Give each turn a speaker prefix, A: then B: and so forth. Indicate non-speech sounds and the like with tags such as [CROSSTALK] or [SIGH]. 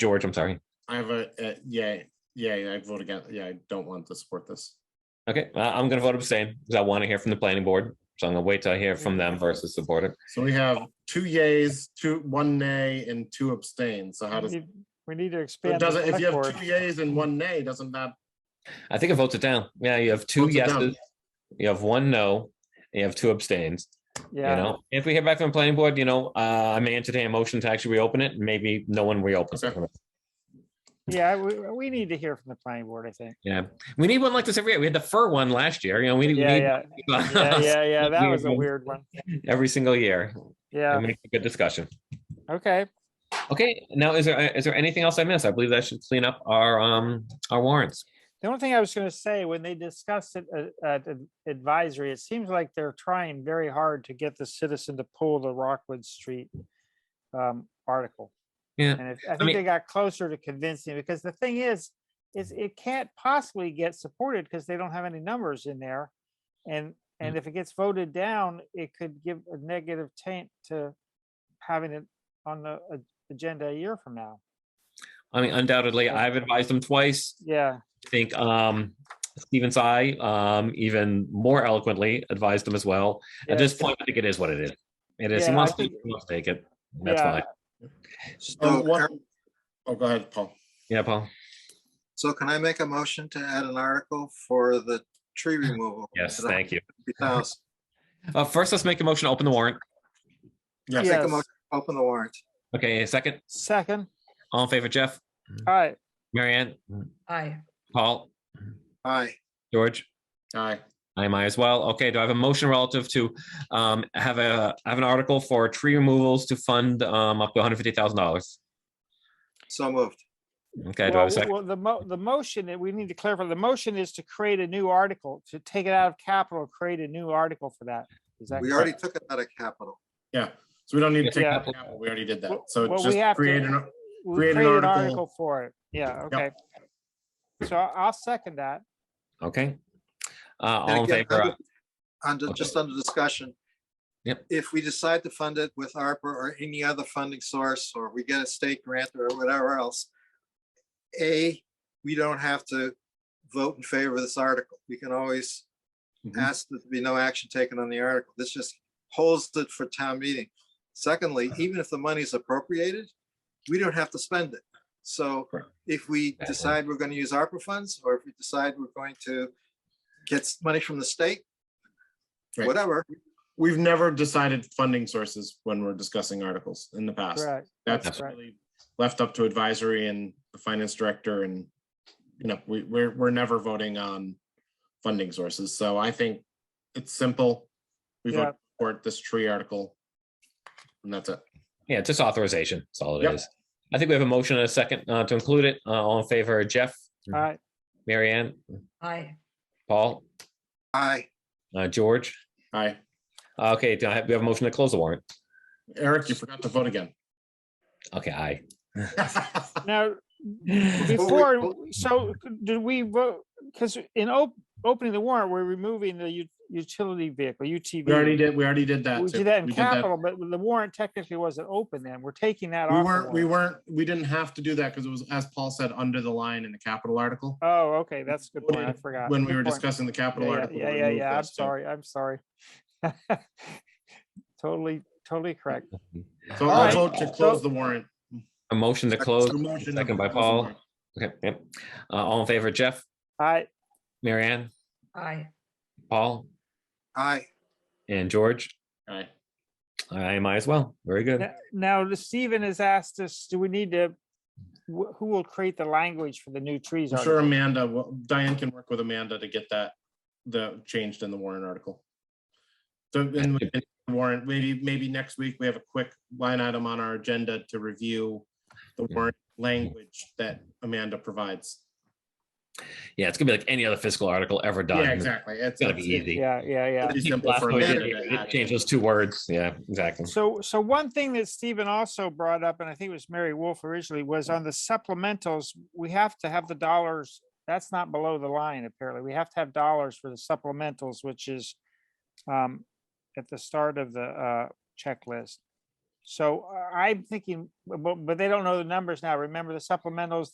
A: George, I'm sorry.
B: I have a, uh, yeah, yeah, I vote again. Yeah, I don't want to support this.
A: Okay, I- I'm gonna vote abstain because I want to hear from the planning board. So I'm gonna wait till I hear from them versus support it.
B: So we have two yays, two, one nay and two abstain. So how
C: We
B: does,
C: need- we need to expand.
B: it
C: the
B: doesn't, if you have
C: select
B: two
C: board.
B: yays and one nay, doesn't that?
A: I think it votes it down. Yeah, you have two
B: Votes it down.
A: yeses, you have one no, and you have two abstains. You
C: Yeah,
A: know, if we hear back from the planning board, you know, uh, I may entertain a motion to actually reopen it. and Maybe no one reopens it.
B: Okay.
C: yeah, we, we need to hear from the planning board, I think.
A: Yeah, we need one like this every year. We had the fur one last year. You know, we we
C: Yeah,
A: need [LAUGHS]
C: yeah, yeah, yeah, yeah, that was a
A: Weird one.
C: weird one.
A: [LAUGHS] every single year. It
C: Yeah,
A: makes a good discussion.
C: okay,
A: Okay, now is there, uh, is there anything else I missed? I believe that should clean up our, um, our warrants.
C: the only thing I was gonna say, when they discussed it at- at ad- advisory, it seems like they're trying very hard to get the citizen to pull the Rockwood Street um, article.
A: Yeah.
C: And if- I
A: mean-
C: think they got closer to convincing, because the thing is, is it can't possibly get supported because they don't have any numbers in there. And,
A: Mm.
C: and if it gets voted down, it could give a negative taint to having it on the a- agenda a year from now.
A: I mean, undoubtedly,
C: Yeah.
A: I've advised them twice.
C: Yeah,
A: I think, um, Stephen Tsai, um, even more eloquently advised them as well. At this
C: Yes.
A: point, I think it is what it is. It is, he
C: Yeah, I
A: wants to, he
C: think-
A: wants to take it. That's
C: Yeah.
A: fine.
B: Oh,
D: So,
B: one- oh, go ahead, Paul.
A: Yeah, Paul?
D: so can I make a motion to add an article for the tree removal?
A: Uh, Yes, thank you.
D: you.
A: Uh, first, let's make a motion to open the warrant.
B: Yes,
D: Take a
C: Yes.
D: motion, open the warrant.
A: Okay, a second.
C: second,
A: All in favor, Jeff,
C: all right,
A: Marianne,
E: Aye.
A: Paul,
D: Aye,
A: George?
B: aye,
A: I am I as well. Okay, do I have a motion relative to um have a have an article for tree removals to fund um up to hundred fifty thousand dollars?
D: so moved.
A: Okay, do I have a
C: Well,
A: second?
C: Well, the mo, the motion that we need to clarify, the motion is to create a new article, to take it out of capital, create a new article for that. Is that
D: We
C: correct?
D: already took it out of capital.
B: yeah. So we don't need to take,
C: Yeah.
B: that out. we already did that.
C: Well-
B: So
C: well, we
B: just
C: have to-
B: create an,
C: We
B: create an
C: create an
B: article.
C: article for it. Yeah, okay. So I- I'll second that.
A: Okay. Uh,
D: And
A: all in
D: again,
A: favor, uh,
D: under- Under,
A: okay.
D: just under discussion.
A: Yep.
D: If we decide to fund it with ARPA or any other funding source, or we get a state grant or whatever else, A, we don't have to vote in favor of this article. We can always
A: Mm-hmm.
B: Mhm.
D: ask that there be no action taken on the article. This just holds it for town meeting. Secondly, even if the money is appropriated, we don't have to spend it. So
A: Correct.
D: if we
A: Exactly.
D: decide we're going to use ARPA funds, or if we decide we're going to get s- money from the state,
B: Right.
D: whatever,
B: we've never decided funding sources when we're discussing articles in the past.
C: Correct.
B: That's
C: That's right.
B: really left up to advisory and the finance director and, you know, we, we're, we're never voting on funding sources. So I think it's simple. We
C: Yeah.
B: vote for this tree article. And that's it.
A: yeah, just authorization. That's all it
B: Yep.
A: is. I think we have a motion and a second uh to include it. Uh, all in favor, Jeff,
C: All right.
A: Marianne,
E: Aye.
A: Paul,
D: I,
A: uh, George.
B: Hi,
A: Uh, Okay, do I have, we have a motion to close the warrant?
B: Eric, you forgot to vote again. [LAUGHS]
A: Okay, aye.
C: Now,
D: we
C: before,
D: vote-
C: so did we vote, because in op- opening the warrant, we're removing the u- utility vehicle, UTV.
B: We already did, we already did that.
C: We
B: too.
C: did that in
B: We
C: capital, but the warrant technically wasn't open then. We're taking that off.
B: We
C: the
B: weren't, we
C: warrant.
B: weren't, we didn't have to do that because it was, as Paul said, under the line in the capital article.
C: Oh, okay, that's a good point. I
B: voted
C: forgot.
B: When we
C: Good
B: were
C: point.
B: discussing the capital
C: Yeah,
B: article.
C: yeah,
B: we
C: yeah,
B: removed
C: yeah. I'm
B: those too.
C: sorry. I'm sorry. [LAUGHS] Totally, totally correct.
B: So
C: All
B: I'll
C: right.
B: vote to close the warrant.
A: A motion to close,
B: So motion to
A: second by
B: close the
A: Paul.
B: warrant.
A: Okay, yep. Uh, all in favor, Jeff,
C: I,
A: Marianne,
E: Aye.
A: Paul,
D: I,
A: and George.
B: All right.
A: I am I as well. Very good.
C: n- now the Stephen has asked us, do we need to, wh- who will create the language for the new trees?
B: I'm sure
C: article?
B: Amanda, will- Diane can work with Amanda to get that, the changed in the warrant article. So then we can warrant, maybe, maybe next week, we have a quick line item on our agenda to review the warrant language that Amanda provides.
A: Yeah, it's gonna be like any other fiscal article ever done.
B: Yeah, exactly. It's
A: It's gonna be easy.
C: Yeah, yeah, yeah.
A: [LAUGHS]
B: Pretty
A: Take the
B: simple
A: last
B: for
A: one,
B: Amanda
A: yeah,
B: to add
A: Change
B: in.
A: those two words. Yeah, exactly.
C: So, so one thing that Stephen also brought up, and I think it was Mary Wolf originally, was on the supplementals, we have to have the dollars. That's not below the line, apparently. We have to have dollars for the supplementals, which is um, at the start of the uh, checklist. So uh, I'm thinking, but, but they don't know the numbers now. Remember the supplementals